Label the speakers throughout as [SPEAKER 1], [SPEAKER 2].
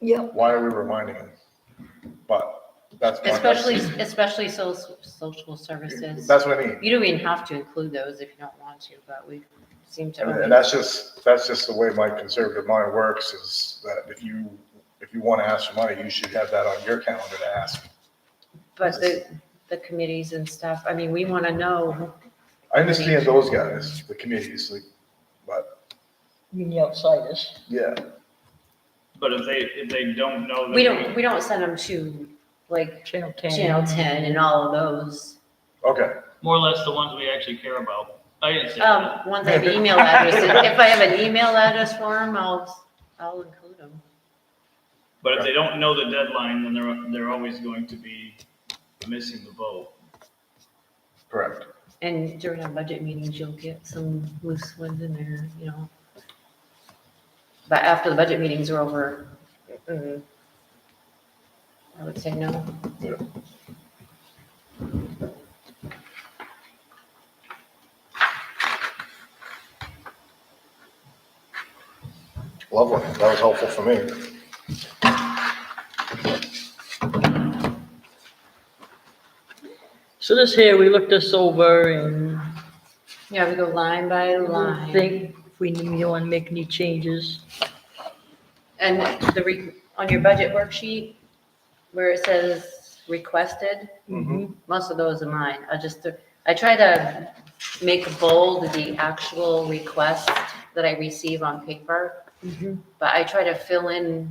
[SPEAKER 1] Yep.
[SPEAKER 2] why are we reminding him? But that's. my-
[SPEAKER 3] Especially, especially so, social services.
[SPEAKER 2] That's what I mean.
[SPEAKER 3] You don't even have to include those if you don't want to, but we seem to.
[SPEAKER 2] And,
[SPEAKER 3] always-
[SPEAKER 2] and that's just, that's just the way my conservative mind works is that if you, if you want to ask for money, you should have that on your calendar to ask.
[SPEAKER 3] But the, the committees and stuff, I mean, we want to know.
[SPEAKER 2] I understand those guys, the committees, like, but
[SPEAKER 1] You mean the outsiders?
[SPEAKER 2] yeah,
[SPEAKER 4] But if they, if they don't know. that
[SPEAKER 3] We don't, we don't send them to like
[SPEAKER 1] Channel ten.
[SPEAKER 3] Channel 10 and all of those.
[SPEAKER 2] okay.
[SPEAKER 4] More or less the ones we actually care about. I understand that.
[SPEAKER 3] Um, once I have an email address, if I have an email address for them, I'll, I'll include them.
[SPEAKER 4] But if they don't know the deadline, then they're, they're always going to be missing the boat.
[SPEAKER 2] Correct.
[SPEAKER 3] And during our budget meetings, you'll get some loose ones in there, you know. But after the budget meetings are over, mm, I would say no.
[SPEAKER 2] Lovely. That was helpful for me.
[SPEAKER 1] So this here, we looked this over and
[SPEAKER 3] Yeah, we go line by
[SPEAKER 1] I
[SPEAKER 3] line.
[SPEAKER 1] think if we need to make any changes.
[SPEAKER 3] And the, re- on your budget worksheet, where it says requested,
[SPEAKER 2] Mhm.
[SPEAKER 3] most of those are mine. I just, I try to make bold the actual request that I receive on paper.
[SPEAKER 1] Mhm.
[SPEAKER 3] but I try to fill in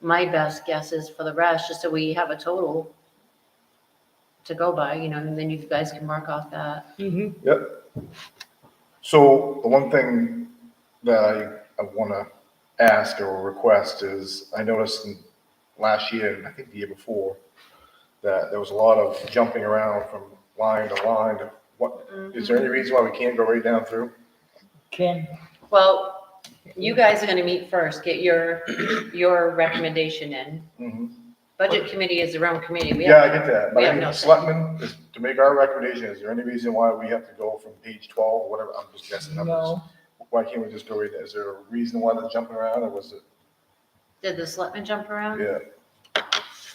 [SPEAKER 3] my best guesses for the rest, just so we have a total to go by, you know, and then you guys can mark off that.
[SPEAKER 1] Mhm.
[SPEAKER 2] Yep. So the one thing that I, I want to ask or request is, I noticed in last year, and I think the year before, that there was a lot of jumping around from line to line. to What, is there any
[SPEAKER 3] Mm-hmm.
[SPEAKER 2] reason why we can't go right down through?
[SPEAKER 1] Ken,
[SPEAKER 3] Well, you guys are gonna meet first, get your, your recommendation in.
[SPEAKER 2] Mhm.
[SPEAKER 3] Budget committee is their own committee. We
[SPEAKER 2] Yeah, I
[SPEAKER 3] have,
[SPEAKER 2] get that.
[SPEAKER 3] we
[SPEAKER 2] But
[SPEAKER 3] have
[SPEAKER 2] I
[SPEAKER 3] no
[SPEAKER 2] mean,
[SPEAKER 3] say.
[SPEAKER 2] selectmen, is- to make our recommendation, is there any reason why we have to go from page twelve, whatever, I'm just guessing numbers?
[SPEAKER 1] no,
[SPEAKER 2] Why can't we just go right there? Is there a reason why they're jumping around or was it,
[SPEAKER 3] did the selectmen jump around?
[SPEAKER 2] yeah,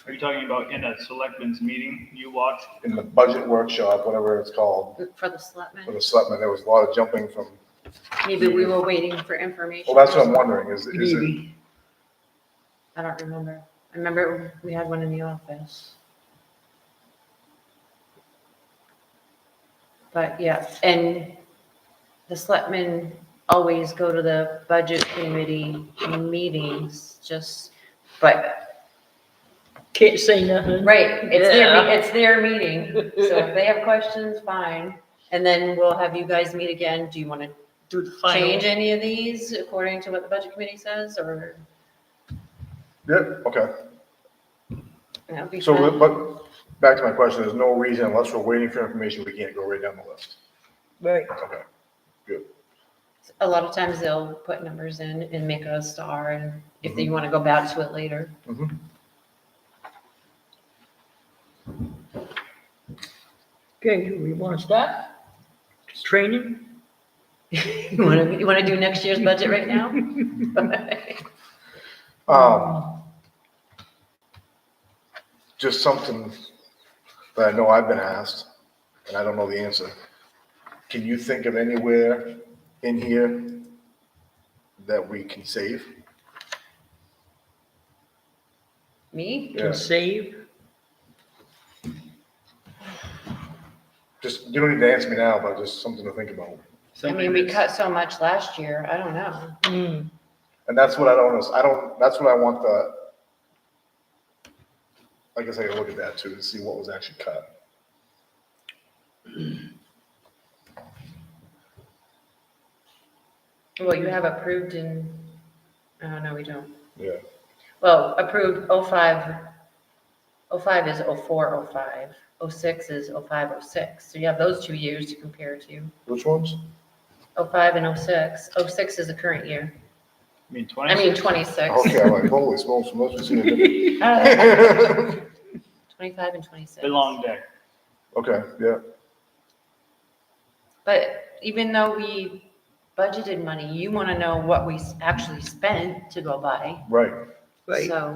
[SPEAKER 4] Are you talking about in a selectmen's meeting you watch?
[SPEAKER 2] in the budget workshop, whatever it's called?
[SPEAKER 3] For
[SPEAKER 2] for
[SPEAKER 3] the selectmen?
[SPEAKER 2] the selectmen, there was a lot of jumping from,
[SPEAKER 3] Maybe we were waiting for information.
[SPEAKER 2] well, that's what I'm wondering, is, is it,
[SPEAKER 1] maybe.
[SPEAKER 3] I don't remember. I remember we had one in the office. But yeah, and the selectmen always go to the budget committee meetings, just, but,
[SPEAKER 1] Can't say nothing.
[SPEAKER 3] right, it's their, me-
[SPEAKER 1] Yeah.
[SPEAKER 3] it's their meeting. So if they have questions, fine. And then we'll have you guys meet again. Do you want to
[SPEAKER 1] Do the
[SPEAKER 3] change any of these according to what the budget committee says or?
[SPEAKER 2] yeah, okay.
[SPEAKER 3] that'd be
[SPEAKER 2] So,
[SPEAKER 3] fun.
[SPEAKER 2] but, back to my question, there's no reason, unless we're waiting for information, we can't go right down the list.
[SPEAKER 1] Right,
[SPEAKER 2] Okay,
[SPEAKER 3] A lot of times they'll put numbers in and make a star and if you want to go back to it later.
[SPEAKER 2] Mm-hmm.
[SPEAKER 1] okay, we want to start? Training?
[SPEAKER 3] You want to, you want to do next year's budget right now?
[SPEAKER 2] um, just something that I know I've been asked, and I don't know the answer. Can you think of anywhere in here that we can save?
[SPEAKER 3] Me?
[SPEAKER 2] Yeah.
[SPEAKER 1] Can save?
[SPEAKER 2] Just, you don't need to answer me now, but just something to think about.
[SPEAKER 3] I mean, we cut so much last year. I don't know.
[SPEAKER 1] Mm,
[SPEAKER 2] And that's what I don't, I don't, that's what I want the, I guess I gotta look at that too, to see what was actually cut.
[SPEAKER 3] Well, you have approved in, oh, no, we don't.
[SPEAKER 2] Yeah.
[SPEAKER 3] Well, approved 05, 05 is 04, 05, 06 is 05, 06. So you have those two years to compare to,
[SPEAKER 2] Which ones?
[SPEAKER 3] 05 and 06. 06 is the current year.
[SPEAKER 4] I mean,
[SPEAKER 3] I mean,
[SPEAKER 4] 26.
[SPEAKER 3] 26.
[SPEAKER 2] Okay, I'm like, holy smokes, most of us are different.
[SPEAKER 3] Uh, 25 and 26.
[SPEAKER 4] The long day.
[SPEAKER 2] Okay, yeah,
[SPEAKER 3] But even though we budgeted money, you want to know what we s- actually spent to go by.
[SPEAKER 2] right.
[SPEAKER 1] right.
[SPEAKER 3] So